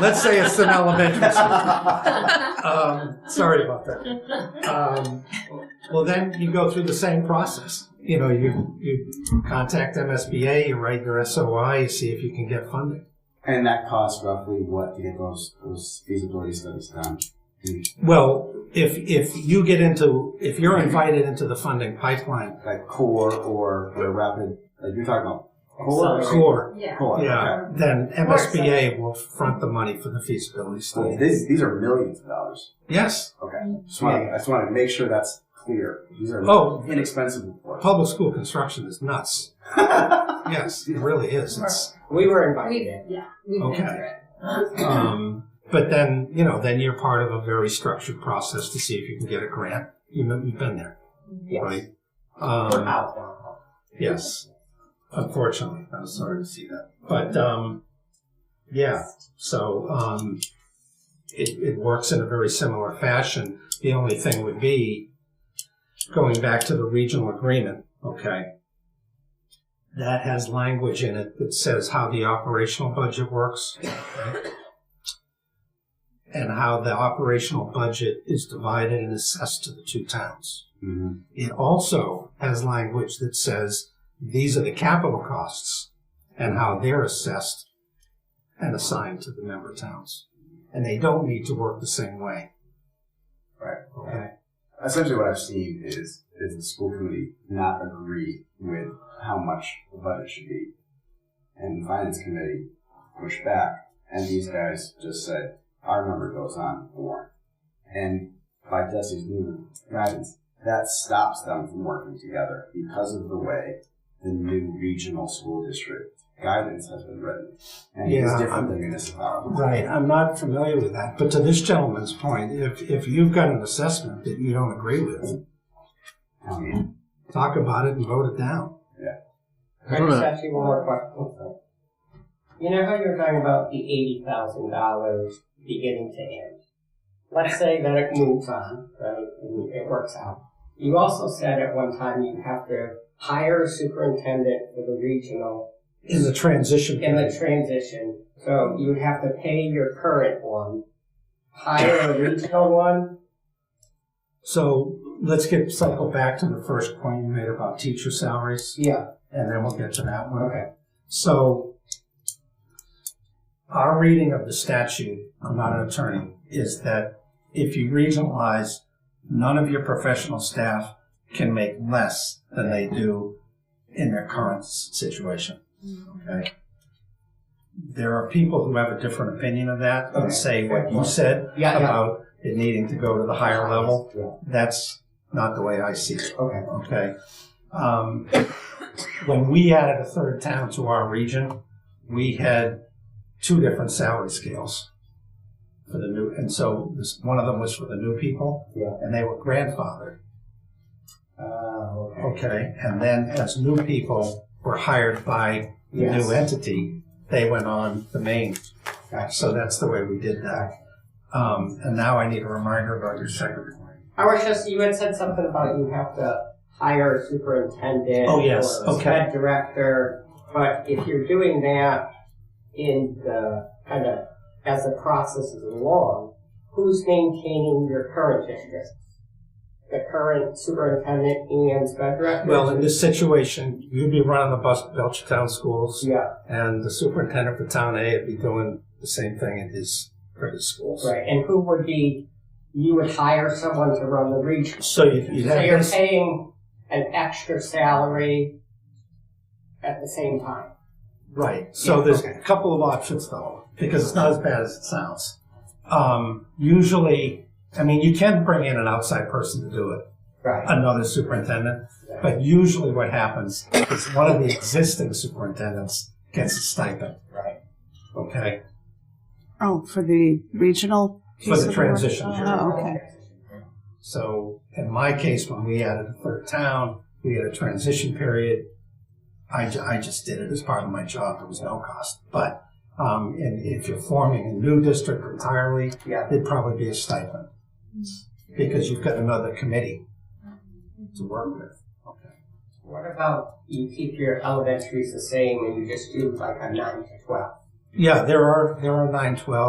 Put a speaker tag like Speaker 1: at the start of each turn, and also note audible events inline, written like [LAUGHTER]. Speaker 1: Let's say it's an elementary school. Um, sorry about that. Um, well, then you go through the same process. You know, you, you contact MSBA, you write your SOI, you see if you can get funding. [LAUGHS]
Speaker 2: And that costs roughly what to get those those feasibility studies done?
Speaker 1: Well, if, if you get into, if you're invited into the funding pipeline,
Speaker 2: Like core or or rapid? Like you're talking about core.
Speaker 1: core,
Speaker 3: Yeah.
Speaker 2: Core.
Speaker 1: yeah,
Speaker 2: Okay.
Speaker 1: then MSBA will front the money for the feasibility
Speaker 2: So
Speaker 1: study.
Speaker 2: these these are millions of dollars.
Speaker 1: Yes,
Speaker 2: Okay. Just wanna, I just want to make sure that's clear. These are
Speaker 1: Oh.
Speaker 2: inexpensive reports.
Speaker 1: public school construction is nuts. Yes, it really is. It's,
Speaker 4: We were invited
Speaker 3: We've,
Speaker 4: in.
Speaker 3: yeah, we've
Speaker 1: Okay.
Speaker 3: been through it.
Speaker 1: Um, but then, you know, then you're part of a very structured process to see if you can get a grant. You know, you've been there,
Speaker 4: Yes.
Speaker 1: right?
Speaker 4: We're
Speaker 1: Um,
Speaker 4: out now.
Speaker 1: yes. Unfortunately, I was sorry to see that. But, um, yeah, so, um, it, it works in a very similar fashion. The only thing would be going back to the regional agreement, okay? That has language in it that says how the operational budget works. and how the operational budget is divided and assessed to the two towns.
Speaker 2: Mhm.
Speaker 1: It also has language that says these are the capital costs and how they're assessed and assigned to the member towns. And they don't need to work the same way.
Speaker 2: Right.
Speaker 1: Okay.
Speaker 2: Essentially, what I've seen is is the school committee not agree with how much the budget should be, and the finance committee push back, and these guys just said our number goes on the warrant, and by Jesse's new guidance, that stops them from working together because of the way the new regional school district guidance has been written, and it's
Speaker 1: Yeah.
Speaker 2: different than municipality.
Speaker 1: Right. I'm not familiar with that. But to this gentleman's point, if, if you've got an assessment that you don't agree with,
Speaker 2: Um,
Speaker 1: talk about it and vote it down.
Speaker 4: I just asked you one more question. You know how you were talking about the eighty thousand dollars beginning to end? Let's say that it moves on, right, and it works out. You also said at one time you have to hire a superintendent for the regional
Speaker 1: In the transition.
Speaker 4: in the transition. So you would have to pay your current one, hire a regional one.
Speaker 1: So let's get cycle back to the first point you made about teacher salaries,
Speaker 4: Yeah.
Speaker 1: and then we'll get to that one.
Speaker 4: Okay.
Speaker 1: So our reading of the statute, I'm not an attorney, is that if you regionalize, none of your professional staff can make less than they do in their current s- situation.
Speaker 4: Mm-hmm.
Speaker 1: Okay. There are people who have a different opinion of that and say what you said
Speaker 4: Yeah, yeah.
Speaker 1: about it needing to go to the higher level
Speaker 4: Yeah.
Speaker 1: that's not the way I see it.
Speaker 4: Okay.
Speaker 1: Okay. Um, when we added a third town to our region, we had two different salary scales for the new, and so this, one of them was for the new people,
Speaker 4: Yeah.
Speaker 1: and they were grandfathered.
Speaker 4: Oh, okay.
Speaker 1: Okay, and then as new people were hired by the
Speaker 4: Yes.
Speaker 1: new entity, they went on the main. So that's the way we did that. Um, and now I need a reminder about your second point.
Speaker 4: I was just, you had said something about you have to hire a superintendent.
Speaker 1: Oh, yes.
Speaker 4: Or a
Speaker 1: Okay.
Speaker 4: sped director, but if you're doing that in the, kind of, as the process is along, who's maintaining your current district? The current superintendent and sped director?
Speaker 1: Well, in this situation, you'd be running the bus at Belchertown schools,
Speaker 4: Yeah,
Speaker 1: and the superintendent for Town A would be doing the same thing in his for his schools.
Speaker 4: right, and who would be, you would hire someone to run the region?
Speaker 1: So you'd, you'd
Speaker 4: So
Speaker 1: have
Speaker 4: you're
Speaker 1: this.
Speaker 4: paying an extra salary at the same time?
Speaker 1: Right. So
Speaker 4: Yeah,
Speaker 1: there's
Speaker 4: okay.
Speaker 1: a couple of options though, because it's not as bad as it sounds. Um, usually, I mean, you can bring in an outside person to do it,
Speaker 4: Right.
Speaker 1: another superintendent, but usually what happens is one of the existing superintendents gets a stipend.
Speaker 4: Right.
Speaker 1: Okay.
Speaker 5: Oh, for the regional?
Speaker 1: For
Speaker 5: piece
Speaker 1: the
Speaker 5: of work?
Speaker 1: transition period.
Speaker 5: Oh, okay.
Speaker 1: So in my case, when we added a third town, we had a transition period. I, ju- I just did it as part of my job. There was no cost. But um, and if you're forming a new district entirely,
Speaker 4: Yeah.
Speaker 1: it'd probably be a stipend because you've got another committee to work with. Okay.
Speaker 4: What about you keep your elementaries the same and you just do like a nine to twelve?
Speaker 1: Yeah, there are there are nine twelve.